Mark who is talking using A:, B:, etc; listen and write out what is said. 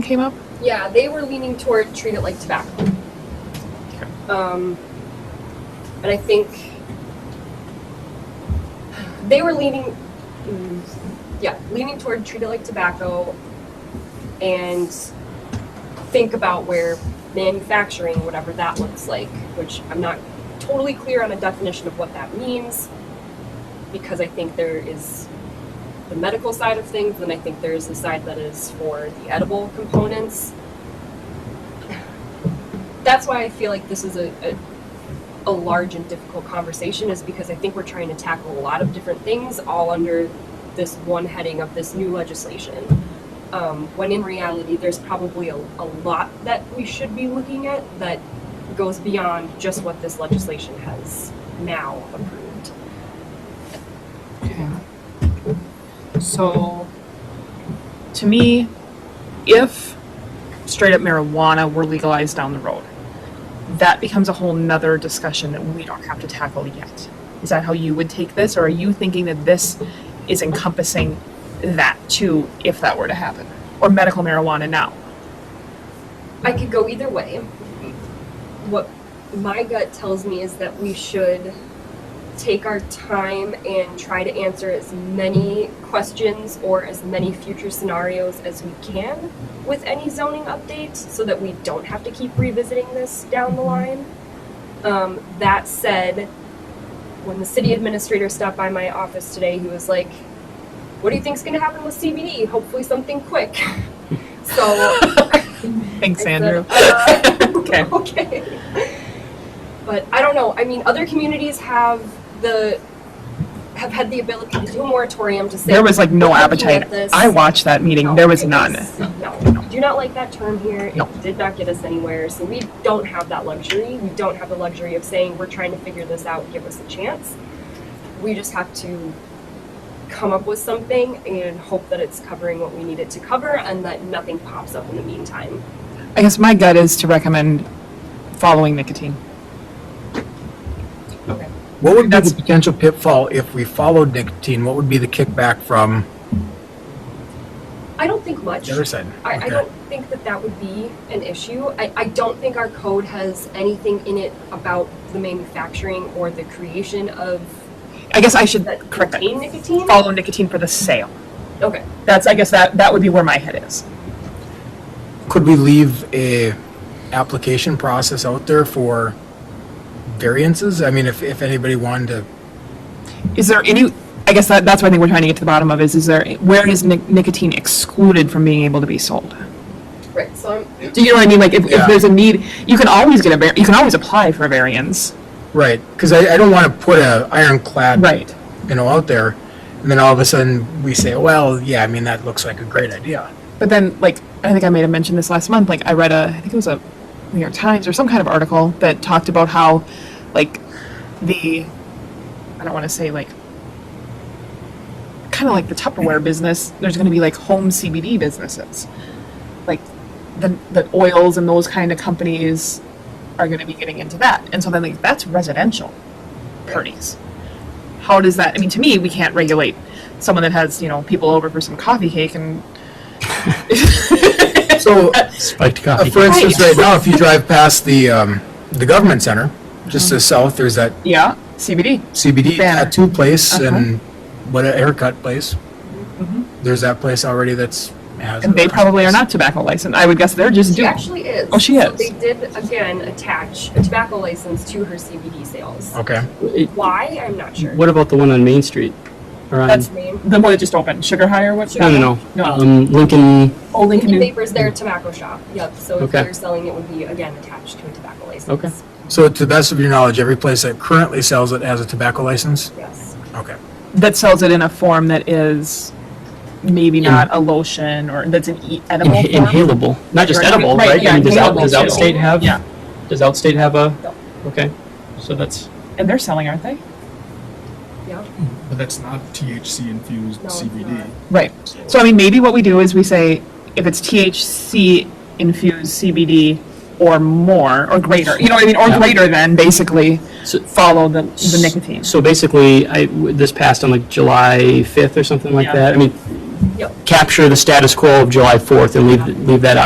A: came up?
B: Yeah, they were leaning toward treat it like tobacco. Um, and I think they were leaning, mm, yeah, leaning toward treat it like tobacco, and think about where manufacturing, whatever that looks like, which I'm not totally clear on a definition of what that means, because I think there is the medical side of things, and I think there is the side that is for the edible components. That's why I feel like this is a, a, a large and difficult conversation, is because I think we're trying to tackle a lot of different things all under this one heading of this new legislation. Um, when in reality, there's probably a, a lot that we should be looking at that goes beyond just what this legislation has now approved.
A: Okay. So, to me, if straight up marijuana were legalized down the road, that becomes a whole nother discussion that we don't have to tackle yet. Is that how you would take this, or are you thinking that this is encompassing that too, if that were to happen? Or medical marijuana now?
B: I could go either way. What my gut tells me is that we should take our time and try to answer as many questions or as many future scenarios as we can with any zoning update so that we don't have to keep revisiting this down the line. Um, that said, when the city administrator stopped by my office today, he was like, What do you think's going to happen with CBD? Hopefully, something quick. so.
A: Thanks,
B: I said,
A: Andrew.
B: "Uh,
A: Okay.
B: Okay. But I don't know, I mean, other communities have the, have had the ability to do a moratorium to say.
A: There was like no
B: "We're looking
A: appetite.
B: at this." Oh,
A: I watched that meeting,
B: No,
A: there was
B: it
A: none.
B: No, we do not like that term here,
A: No.
B: it did not get us anywhere, so we don't have that luxury, we don't have the luxury of saying, we're trying to figure this out, give us a chance. We just have to come up with something and hope that it's covering what we need it to cover and that nothing pops up in the meantime.
A: I guess my gut is to recommend following nicotine.
C: What would be
A: That's-
C: the potential pitfall if we followed nicotine? What would be the kickback from
B: I don't think much.
C: the other side?
B: I, I
C: Okay.
B: don't think that that would be an issue. I, I don't think our code has anything in it about the manufacturing or the creation of
A: I guess I should
B: that
A: correct that.
B: contain nicotine.
A: follow nicotine for the sale.
B: Okay.
A: That's, I guess that, that would be where my head is.
C: Could we leave a application process out there for variances? I mean, if, if anybody wanted to,
A: Is there any, I guess that, that's what I think we're trying to get to the bottom of is, is there, where is nic- nicotine excluded from being able to be sold?
B: Right. So I'm
A: Do you know what I mean? Like, if, if
C: Yeah.
A: there's a need, you can always get a, var- you can always apply for a variance.
C: right, because I, I don't want to put a ironclad,
A: Right.
C: you know, out there. And then all of a sudden we say, well, yeah, I mean, that looks like a great idea.
A: But then, like, I think I may have mentioned this last month. Like, I read a, I think it was a New York Times or some kind of article that talked about how, like, the, I don't want to say like, kind of like the Tupperware business. There's going to be like home CBD businesses, like the the oils and those kind of companies are going to be getting into that. And so then, like, that's residential parties. How does that? I mean, to me, we can't regulate someone that has you know people over for some coffee cake and
C: So
D: Spiked
C: Uh,
D: coffee.
C: for
A: Right.
C: instance, right now, if you drive past the, um, the government center, just to the south, there's that
A: Yeah, CBD.
C: CBD
A: Banner.
C: tattoo place
A: Uh-huh. Mm-hmm.
C: and what a haircut place. There's that place already that's has.
A: And they probably are not tobacco licensed. I would guess they're just
B: she
A: doing.
B: actually is.
A: Oh, she
B: So
A: is.
B: they did again attach a tobacco license to her CBD sales.
C: Okay.
D: It-
B: Why? I'm not sure.
D: What about the one on Main Street? Or on,
A: That's-
B: name?
A: The one that just opened, Sugar High or what?
D: I don't know.
A: No.
D: Um, Lincoln,
A: Old Lincoln.
B: Lincoln
A: New-
B: Vapors, their tobacco shop. Yep. So if
D: Okay.
B: they're selling, it would be again attached to a tobacco license.
D: Okay.
C: So to the best of your knowledge, every place that currently sells it has a tobacco license?
B: Yes.
C: Okay.
A: That sells it in a form that is maybe not a lotion or that's an e- edible
D: inha-
A: form.
D: inhalable, not just
A: Right,
D: edible,
A: right,
D: right? I
A: yeah,
D: mean, does out,
A: inhalable
D: does
A: too.
D: Outstate have?
A: Yeah.
D: Does Outstate have a?
A: No.
D: Okay, so that's,
A: And they're selling, aren't they?
B: Yep.
E: But that's not THC infused
B: No, it's
E: CBD.
A: Right. So I mean, maybe what we do is we say if it's THC infused CBD or more or greater, you know what I mean, or
D: Yeah.
A: greater than basically
D: So-
A: follow the, the nicotine.
D: so basically, I, this passed on like July fifth or something like
A: Yeah.
D: that. I mean,
B: Yep.
D: capture the status quo of July fourth and leave, leave that out.